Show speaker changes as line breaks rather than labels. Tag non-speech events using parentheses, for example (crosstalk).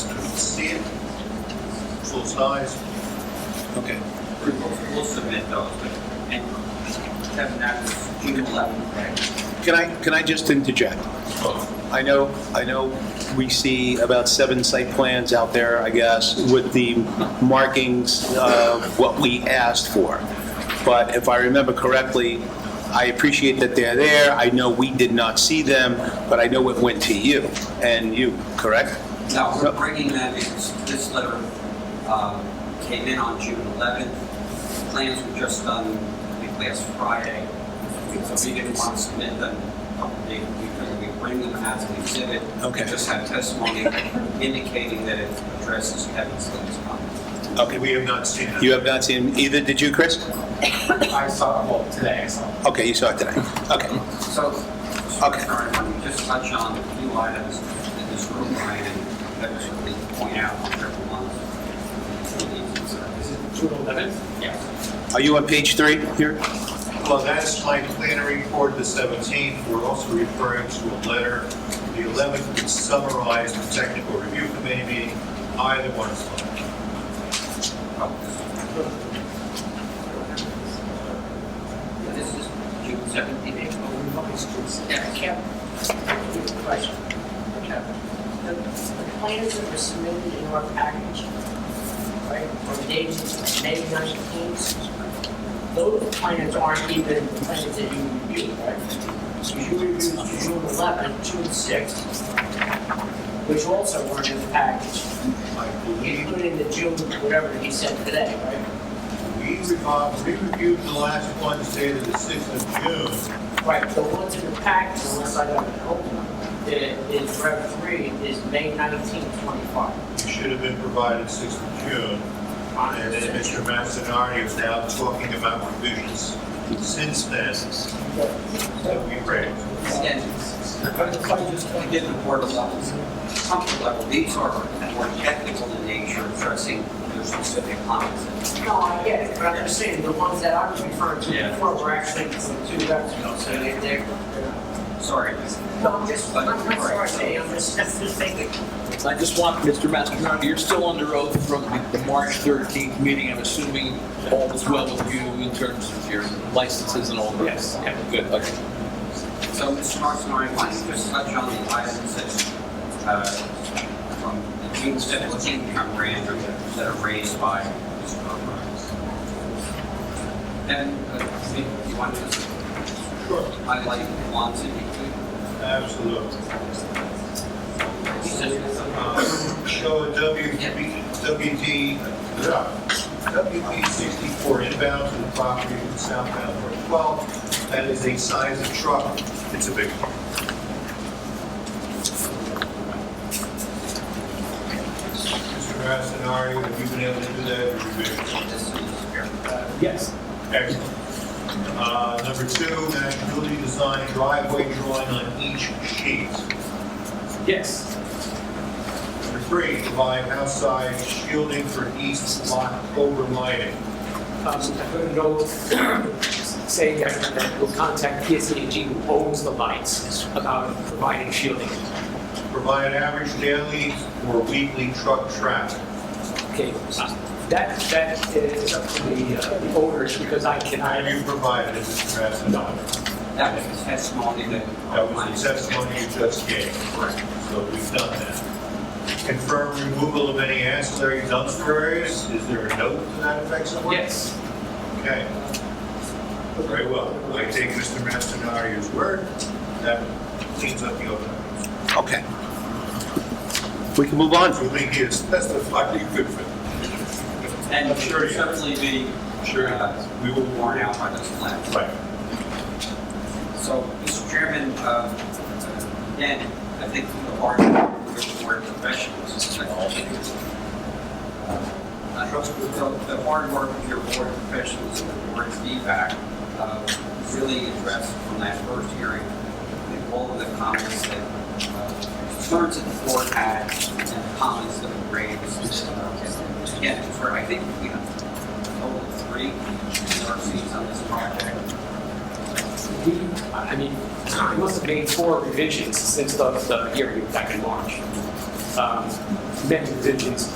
actual size,
Okay.
We'll submit those, but, and Kevin, that's June eleventh, right?
Can I, can I just interject? I know, I know we see about seven site plans out there, I guess, with the markings of what we asked for. But if I remember correctly, I appreciate that they're there. I know we did not see them, but I know it went to you and you, correct?
No,
No.
we're bringing them in, this letter, um, came in on June eleventh. Plans were just done, I think, last Friday. So we didn't want to submit them, we, we we bring them as an exhibit.
Okay.
We Just have testimony indicating that it addresses Kevin's latest comments.
Okay.
we have not seen it.
You have not seen either, did you, Chris?
(coughs) I saw, well, today I saw.
Okay, you saw it today. Okay.
So,
Okay.
sorry, let me just touch on a few items in this room, Ryan, and that we should point out on every one.
Is it June eleventh?
Yes.
Are you on page three here?
Well, that's my planner report, the 17th. We're also referring to a letter, the 11th, which summarized the technical review committee meeting. Either one is fine.
Oh, This is June seventeenth.
Yeah, Kevin, good question. Kevin, The the plans that were submitted in our package, right, from dated May nineteenth, those plans aren't even the plans that you reviewed, right? So you reviewed June eleventh, June sixth, which also weren't in the package,
I believe
including the June, whatever he said today, right?
we revo- we reviewed the last ones dated the 6th of June.
Right, the ones in the package, unless I got it open, that is, rep three is May nineteenth, twenty-five.
It should have been provided 6th of June. And then Mr. Mastinardi is now talking about revisions since then that we raised.
Again, but if I just point in the board level, comfort level, these are more technical in nature, addressing your specific comments.
No, I get it, but I'm just saying, the ones that I was referring to
Yeah.
before were actually from two reps ago, so they, they're.
Sorry.
No, I'm just, I'm
But-
not sorry, Dave, I'm just, that's just thinking.
I just want, Mr. Mastriano, you're still under oath from the March 13th meeting. I'm assuming all is well with you in terms of your licenses and all that? Yes. Okay, good, okay.
So, Mr. Marson, I want to just touch on the items that, uh, from the June seventeenth memorandum that are raised by Mr. Burrows. And, uh, do you want to just
Sure.
highlight the ones that you,
Absolutely.
you said,
Um, Show a W- WD, WP 64 inbound to the property in southbound Route 12. That is a size of truck. It's a big one. Mr. Mastinardi, have you been able to do that? Have you been-
this is here.
Yes.
Excellent. Uh, Number two, match building design driveway drawing on each sheet.
Yes.
Number three, provide outside shielding for east block overlighting.
Um, so I put a (coughs) note saying that that we'll uh, contact PSEG who owns the lights about providing shielding.
Provide average daily or weekly truck traffic.
Okay, uh, that, that is up to the uh, the owners because I
Have
cannot.
you provided it, Mr. Mastinardi?
That was the testimony that.
That was the testimony you just gave. Correct. So we've done that. Confirm removal of any ancillary dumpster areas. Is there a note to that effect somewhere?
Yes.
Okay. Very well. I take Mr. Mastinardi's word. That cleans up the open.
Okay. We can move on.
You think he has testified he could fit?
And
Sure, yeah.
certainly be, uh, we were worn out by those plans.
Right.
So, Mr. Chairman, uh, again, I think the hard work of professionals is like all they do. I trust the, the hard work of your board of professionals and the board's feedback uh, was really addressed from that first hearing. I think all of the comments that, uh, concerns that the board had and the comments that were raised. uh, Again, for, I think we have a total of three NRCs on this project.
We, I mean, I must have made four revisions since the, the hearing back in March. Um, Many revisions